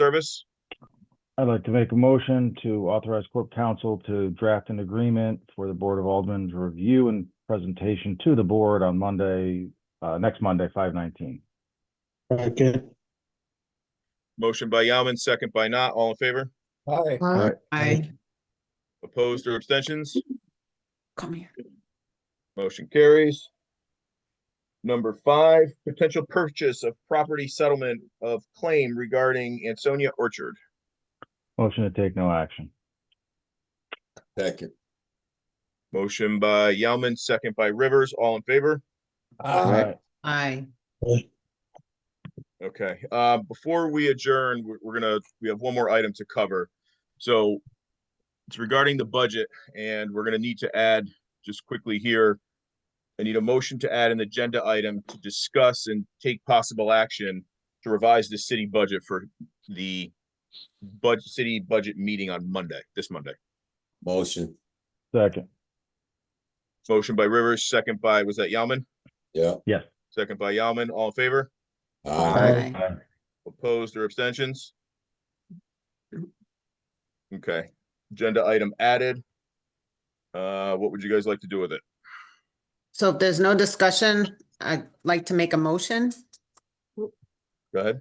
service. I'd like to make a motion to authorize corp counsel to draft an agreement for the Board of Aldermen's review and presentation to the board on Monday, uh, next Monday, five nineteen. Second. Motion by Yaman, second by Not. All in favor? Aye. Aye. Aye. Opposed or abstentions? Come here. Motion carries. Number five, potential purchase of property settlement of claim regarding Ansonia Orchard. Motion to take no action. Second. Motion by Yaman, second by Rivers. All in favor? Aye. Aye. Okay, uh, before we adjourn, we're, we're gonna, we have one more item to cover. So it's regarding the budget and we're gonna need to add, just quickly here, I need a motion to add an agenda item to discuss and take possible action to revise the city budget for the budget, city budget meeting on Monday, this Monday. Motion, Second, Motion by Rivers, second by, was that Yaman? yeah. yes. Second by Yaman, all in favor? Aye. Opposed or abstentions? Okay, agenda item added. Uh, what would you guys like to do with it? So if there's no discussion, I'd like to make a motion. Go ahead.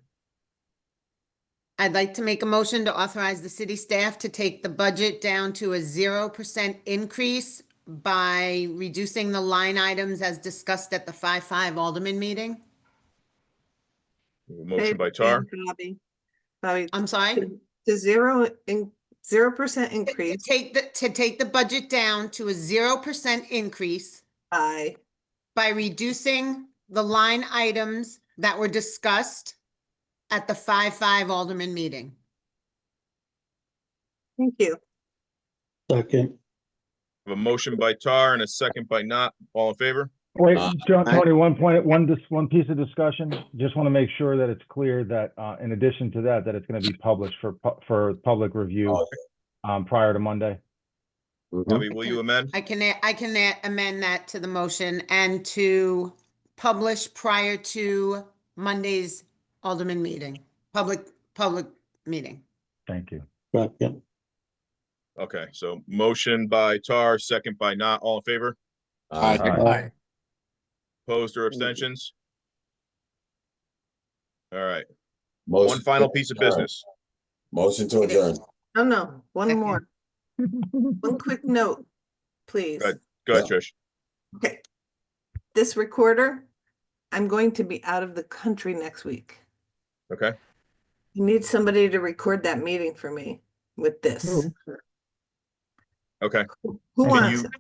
I'd like to make a motion to authorize the city staff to take the budget down to a zero percent increase by reducing the line items as discussed at the five-five Alderman meeting. Motion Dave by Tar, and Bobby. Bobby, I'm sorry? the zero in, zero percent To increase take the, to take the budget down to a zero percent increase by, by reducing the line items that were discussed at the five-five Alderman meeting. thank you. Second. a motion by Tar and a second by Not. All in favor? Wait, Aye. John, Tony, one point, one, dis one piece of discussion. Just want to make sure that it's clear that, uh, in addition to that, that it's going to be published for, pu- for public review, Oh, Okay. um, prior to Monday. Bobby, will you amend? I can, a- I can a- amend that to the motion and to publish prior to Monday's Alderman meeting, public, public meeting. Thank you. Second. Okay, so motion by Tar, second by Not. All in favor? Aye. Aye. Opposed or abstentions? All right, one Motion final to piece of adjourn. business. Motion to adjourn. No, Oh, no, one Second. more. One quick note, please. Good. Go ahead, Trish. Okay. This recorder, I'm going to be out of the country next week. Okay, You need somebody to record that meeting for me with this. okay. Who who Can wants? you- it?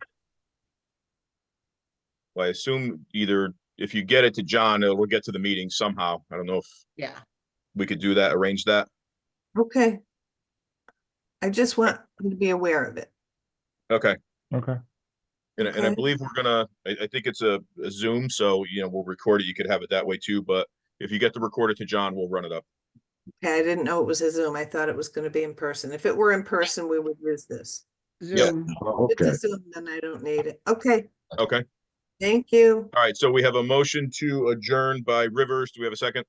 Well, I assume either if you get it to John, it'll get to the meeting somehow. I don't know if Yeah. we could do that, arrange that. Okay. I just want you to be aware of it. Okay. Okay. And, and I Okay. believe we're gonna, I, I think it's a a Zoom, so, you know, we'll record it. You could have it that way too, but if you get to record it to John, we'll run it up. Okay, I didn't know it was a Zoom. I thought it was going to be in person. If it were in person, we would use this. Yeah. Zoom. If It's a Zoom, then I don't need it. Okay, Okay, thank you. all right. So we have a motion to adjourn by Rivers. Do we have a second?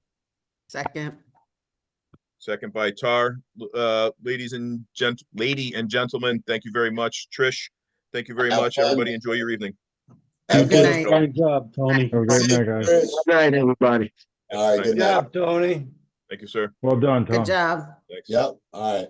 Second. Second by Tar. L- Uh, ladies and gent, lady and gentlemen, thank you very much. Trish, thank you very Have much. fun. Everybody enjoy your evening. Good night. Fine job, Tony. Have a great night, guys. Good night, everybody. All right, good Good night. Tony. Thank you, sir. Well done, Tom. Good job. Thanks. Yep, all right.